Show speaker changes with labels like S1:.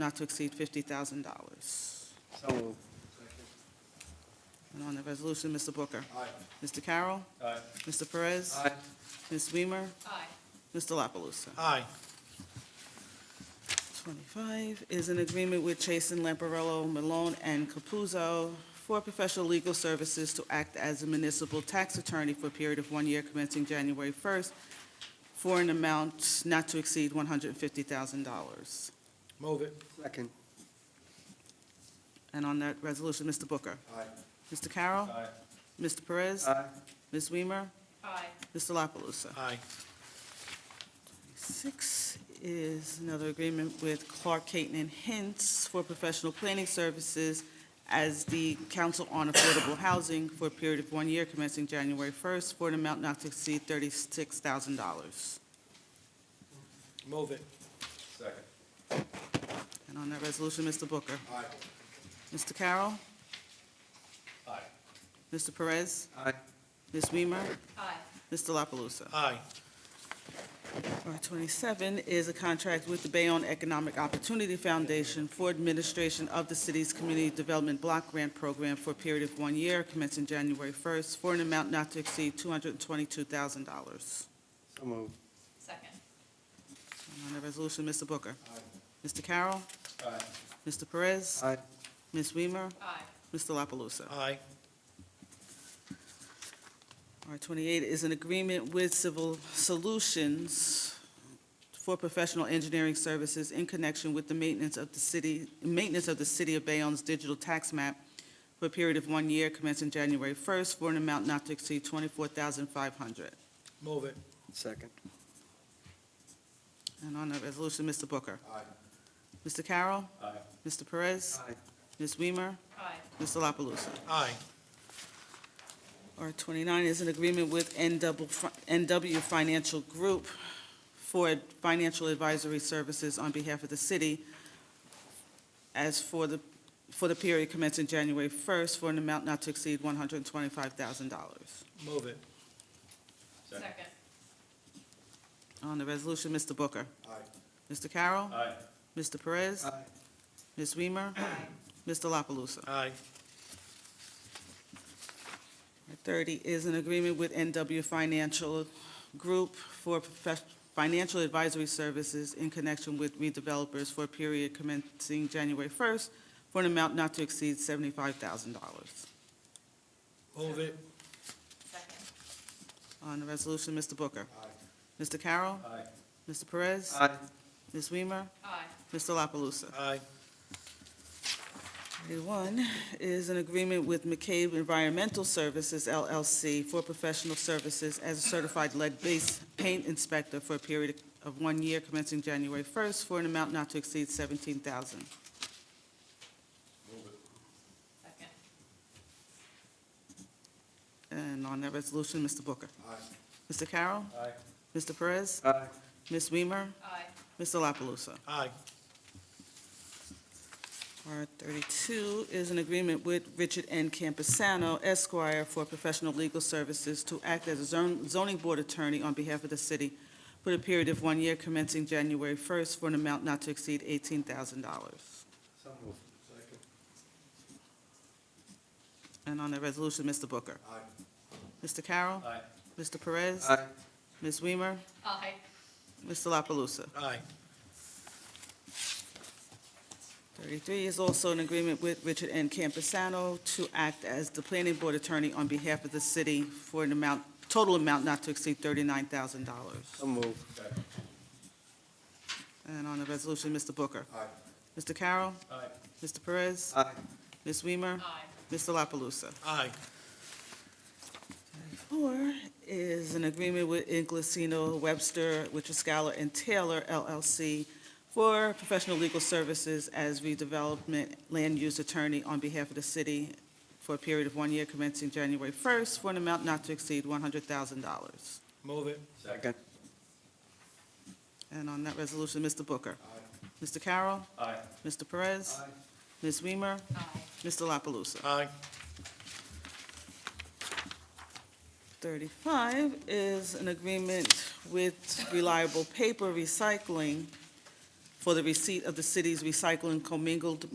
S1: not to exceed $50,000.
S2: So moved.
S1: And on the resolution, Mr. Booker.
S2: Aye.
S1: Mr. Carroll.
S2: Aye.
S1: Mr. Perez.
S2: Aye.
S1: Ms. Weimer.
S3: Aye.
S1: Mr. La Palusa.
S2: Aye.
S1: 25 is an agreement with Chasen Lamparello, Malone, and Capuzzo for professional legal services to act as a municipal tax attorney for a period of one year commencing January 1st for an amount not to exceed $150,000.
S2: Move it. Second.
S1: And on that resolution, Mr. Booker.
S2: Aye.
S1: Mr. Carroll.
S2: Aye.
S1: Mr. Perez.
S2: Aye.
S1: Ms. Weimer.
S3: Aye.
S1: Mr. La Palusa.
S2: Aye.
S1: Six is another agreement with Clark Caton and Hints for professional planning services as the Council on Affordable Housing for a period of one year commencing January 1st for an amount not to exceed $36,000.
S2: Move it. Second.
S1: And on that resolution, Mr. Booker.
S2: Aye.
S1: Mr. Carroll,
S2: Aye.
S1: Mr. Perez,
S2: Aye.
S1: Ms. Weimer,
S3: Aye.
S1: Mr. La Palusa.
S2: Aye.
S1: R twenty-seven is a contract with the Bayonne Economic Opportunity Foundation for administration of the city's Community Development Block Grant Program for a period of one year commencing January first for an amount not to exceed two hundred and twenty-two thousand dollars.
S2: So moved.
S3: Second.
S1: On the resolution, Mr. Booker. Mr. Carroll.
S2: Aye.
S1: Mr. Perez.
S2: Aye.
S1: Ms. Weimer.
S3: Aye.
S1: Mr. La Palusa.
S2: Aye.
S1: R twenty-eight is an agreement with Civil Solutions for professional engineering services in connection with the maintenance of the city, maintenance of the City of Bayonne's digital tax map for a period of one year commencing January first for an amount not to exceed twenty-four thousand five hundred.
S2: Move it. Second.
S1: And on that resolution, Mr. Booker.
S2: Aye.
S1: Mr. Carroll.
S2: Aye.
S1: Mr. Perez.
S2: Aye.
S1: Ms. Weimer.
S3: Aye.
S1: Mr. La Palusa.
S2: Aye.
S1: R twenty-nine is an agreement with NW fi- NW Financial Group for financial advisory services on behalf of the city as for the, for the period commencing January first for an amount not to exceed one hundred and twenty-five thousand dollars.
S2: Move it.
S3: Second.
S1: On the resolution, Mr. Booker.
S2: Aye.
S1: Mr. Carroll.
S2: Aye.
S1: Mr. Perez.
S2: Aye.
S1: Ms. Weimer.
S3: Aye.
S1: Mr. La Palusa.
S2: Aye.
S1: R thirty is an agreement with NW Financial Group for profes- financial advisory services in connection with redevelopers for a period commencing January first for an amount not to exceed seventy-five thousand dollars.
S2: Move it.
S3: Second.
S1: On the resolution, Mr. Booker.
S2: Aye.
S1: Mr. Carroll.
S2: Aye.
S1: Mr. Perez.
S2: Aye.
S1: Ms. Weimer.
S3: Aye.
S1: Mr. La Palusa.
S2: Aye.
S1: 31 is an agreement with McCabe Environmental Services LLC for professional services as a certified lead-based paint inspector for a period of one year commencing January 1st for an amount not to exceed 17000
S3: Second.
S1: And on that resolution, Mr. Booker.
S2: Aye.
S1: Mr. Carroll.
S2: Aye.
S1: Mr. Perez.
S2: Aye.
S1: Ms. Weimer.
S3: Aye.
S1: Mr. La Palusa.
S2: Aye.
S1: R thirty-two is an agreement with Richard N. Campusano Esquire for professional legal services to act as a zon- zoning board attorney on behalf of the city for the period of one year commencing January first for an amount not to exceed eighteen thousand dollars.
S2: So moved. Second.
S1: And on the resolution, Mr. Booker.
S2: Aye.
S1: Mr. Carroll.
S2: Aye.
S1: Mr. Perez.
S2: Aye.
S1: Ms. Weimer.
S3: Aye.
S1: Mr. La Palusa.
S2: Aye.
S1: 33 is also an agreement with Richard N. Campusano to act as the planning board attorney on behalf of the city for an amount, total amount not to exceed $39,000.
S2: moved.
S1: And on the resolution, Mr. Booker.
S2: Aye.
S1: Mr. Carroll.
S2: Aye.
S1: Mr. Perez.
S2: Aye.
S1: Ms. Weimer.
S3: Aye.
S1: Mr. La Palusa.
S2: Aye.
S1: Four is an agreement with Inglesino Webster, Wichaskala, and Taylor LLC for professional legal services as redevelopment land use attorney on behalf of the city for a period of one year commencing January 1st for an amount not to exceed $100,000.
S2: Move it. Second.
S1: And on that resolution, Mr. Booker. Mr. Carroll.
S2: Aye.
S1: Mr. Perez. Ms. Weimer.
S3: Aye.
S1: Mr. La Palusa.
S2: Aye.
S1: 35 is an agreement with Reliable Paper Recycling for the receipt of the city's recycling commingled